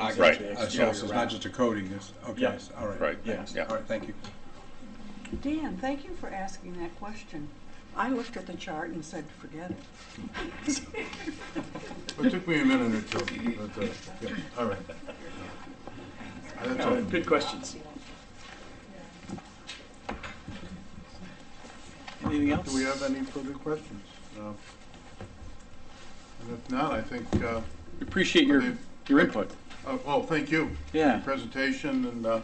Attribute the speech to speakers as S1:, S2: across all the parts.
S1: I
S2: Right.
S1: got you.
S3: Uh, So
S1: Exterior
S3: it's
S1: wrap.
S3: not just a coating, it's, okay,
S1: Yeah.
S3: all right.
S2: Right,
S3: thanks.
S2: yeah.
S3: All right, thank you.
S4: Dan, thank you for asking that question. I looked at the chart and said, forget it.
S5: It took me a minute or two, but, uh, yeah, all right. That's all.
S1: Good questions. Anything else?
S5: Do we have any further questions? Uh, And if not, I think, uh,
S1: We Appreciate your, your input.
S5: oh, oh, thank you.
S1: Yeah.
S5: Your Presentation, and uh,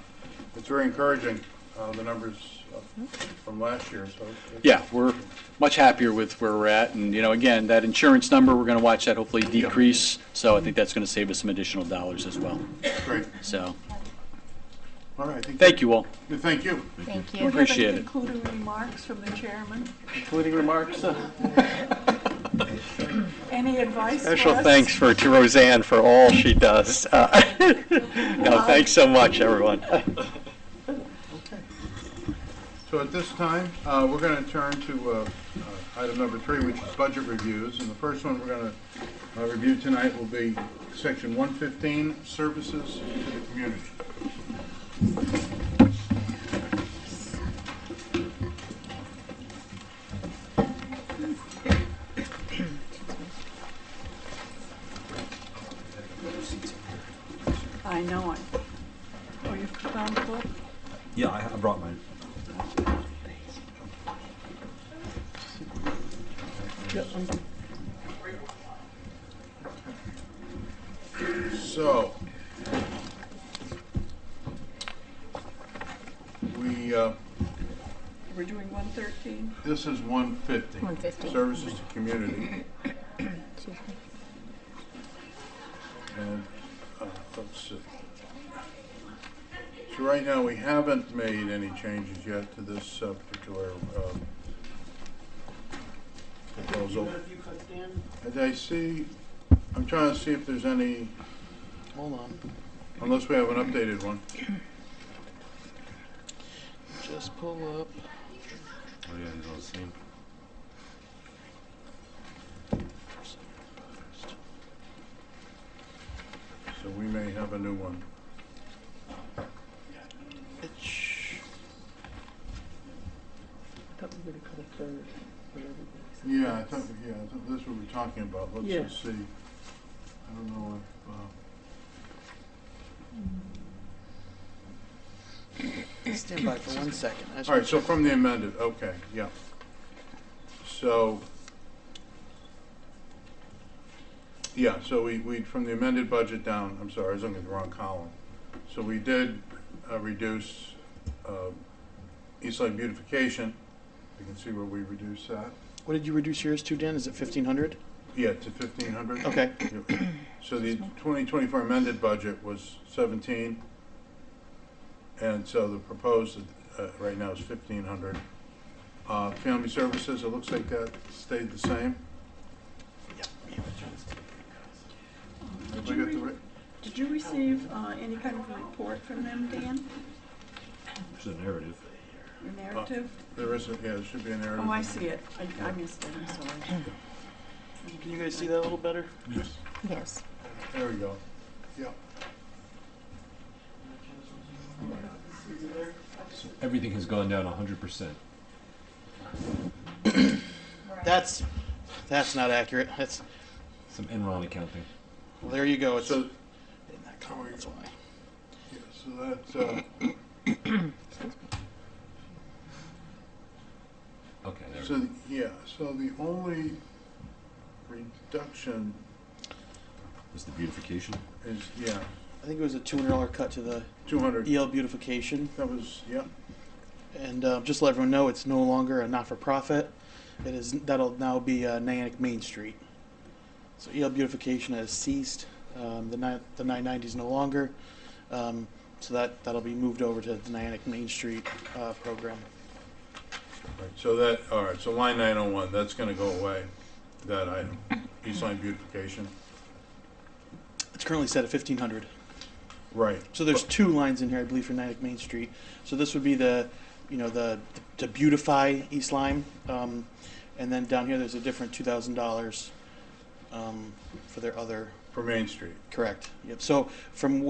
S5: it's very encouraging, uh, the numbers uh, from last year, so. it's-
S1: Yeah, we're much happier with where we're at, and, you know, again, that insurance number, we're gonna watch that hopefully decrease, so I think that's gonna save us some additional dollars as well,
S5: Great,
S1: so,
S5: all right. I think-
S1: thank you all.
S5: Thank you.
S6: Thank
S4: Do
S6: you.
S4: we have
S1: Appreciate
S4: any
S1: it.
S4: concluding remarks from the chairman?
S1: Concluding remarks? uh,
S4: Any advice for us?
S7: Special thanks for, to Roseanne for all she does. Uh, No, thanks so much, everyone.
S5: So at this time, uh, we're going to turn to uh, uh, item number three, which is budget reviews. And the first one we're going to review tonight will be section 115, services to the community.
S4: I know it. Oh, you've found the book?
S8: Yeah, I, I brought mine.
S5: So, we, uh,
S4: We're doing 113?
S5: this is 150.
S6: 150.
S5: Services to community.
S6: Excuse me.
S5: And, uh, let's see. So right now, we haven't made any changes yet to this uh, particular, um, proposal. Did I see, I'm trying to see if there's any,
S2: Hold on,
S5: unless we have an updated one.
S2: just pull up.
S8: Oh, yeah, these are the same.
S5: So we may have a new one. Yeah, I thought, yeah, I thought that's what we're talking about. Let's
S1: Yeah.
S5: just see. I don't know if, uh,
S2: Stand by for one second. I just
S5: All right,
S2: wanna
S5: so
S2: check.
S5: from the amended, okay, yeah. So, yeah, so we, we, from the amended budget down, I'm sorry, I was looking at the wrong column. So we did uh, reduce uh, Eastside beautification. You can see where we reduced that.
S2: What did you reduce yours to, Dan? Is it fifteen hundred?
S5: Yeah, to fifteen hundred.
S2: Okay.
S5: So the twenty twenty-four amended budget was seventeen. And so the proposed, uh, right now is fifteen hundred. Uh, family services, it looks like that stayed the same.
S4: Did
S5: Have I got
S4: you
S5: the
S4: re-
S5: right-
S4: Did you receive uh, any kind of report from them, Dan?
S8: It's a narrative.
S4: Your narrative?
S5: There isn't, yeah, there should be an error.
S4: Oh, I see it. I- I missed it, I'm sorry.
S2: Can you guys see that a little better?
S6: Yes.
S5: There we go. Yeah.
S8: So everything has gone down hundred percent.
S2: That's, that's not accurate. That's,
S8: Some Enron accounting.
S2: well, there you go. It's
S5: So,
S2: in that column, that's why.
S5: yeah, so that's, uh,
S8: Okay, there. we go.
S5: so, the- yeah, so the only reduction
S8: Is the beautification?
S5: is, yeah,
S2: I think it was a two hundred dollar cut to the
S5: two hundred.
S2: EL beautification.
S5: That was, yeah,
S2: And uh, just to let everyone know, it's no longer a not-for-profit. It is that'll now be uh, Nyack Main Street. So EL beautification has ceased. Um, the ni- the 990 is no longer. Um, so that that'll be moved over to the Nyack Main Street uh, program.
S5: Right, so that, all right, so line nine oh one, that's gonna go away, that item, East Line beautification.
S2: It's currently set at 1500.
S5: Right,
S2: So there's two lines in here, I believe, for Nyack Main Street. So this would be the, you know, the to beautify East Lyme, um, and then down here there's a different two thousand dollars um, for their other
S5: for Main Street.
S2: Correct. Yep. So from